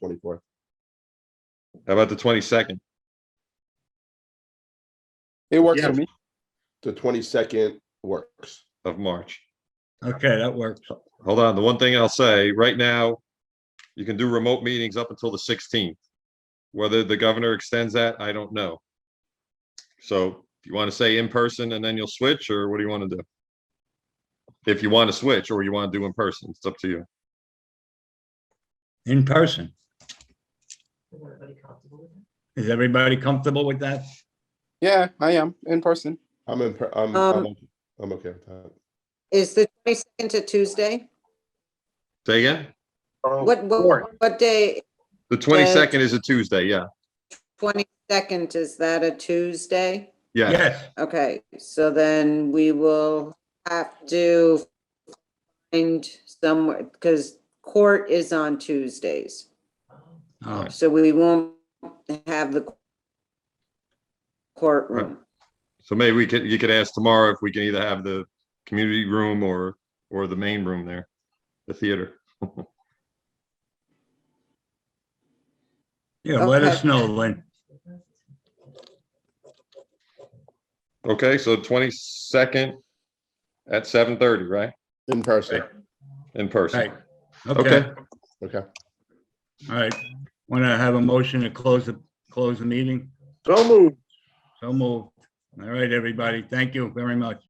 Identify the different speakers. Speaker 1: twenty-fourth? How about the twenty-second?
Speaker 2: It works
Speaker 3: Yeah.
Speaker 2: for me. The twenty-second works.
Speaker 1: of March?
Speaker 3: Okay, that works.
Speaker 1: Hold on, the one thing I'll say, right now, you can do remote meetings up until the sixteenth. Whether the governor extends that, I don't know. So you want to say in person and then you'll switch, or what do you want to do? If you want to switch or you want to do in person, it's up to you.
Speaker 3: In person.
Speaker 4: Is everybody comfortable with that?
Speaker 3: Is everybody comfortable with that?
Speaker 5: Yeah, I am in person.
Speaker 2: I'm in, per- I'm,
Speaker 6: Um,
Speaker 2: I'm, okay- I'm okay with that.
Speaker 6: Is the twenty-second to Tuesday?
Speaker 1: Say again?
Speaker 6: What, what, what day,
Speaker 1: The twenty-second is a Tuesday, yeah,
Speaker 6: twenty-second, is that a Tuesday?
Speaker 1: yeah.
Speaker 3: Yes,
Speaker 6: Okay, so then we will have to find somewhere, because court is on Tuesdays.
Speaker 4: Um,
Speaker 3: Oh,
Speaker 6: So we won't have the courtroom.
Speaker 1: So maybe we could, you could ask tomorrow if we can either have the community room or, or the main room there, the theater.
Speaker 3: yeah, let us
Speaker 6: Okay.
Speaker 3: know, Lynn.
Speaker 1: Okay, so twenty-second at seven thirty, right?
Speaker 2: In person,
Speaker 1: In person.
Speaker 3: Right, okay,
Speaker 2: okay.
Speaker 3: all right. Want to have a motion to close the, close the meeting?
Speaker 7: So moved.
Speaker 3: So moved. All right, everybody, thank you very much.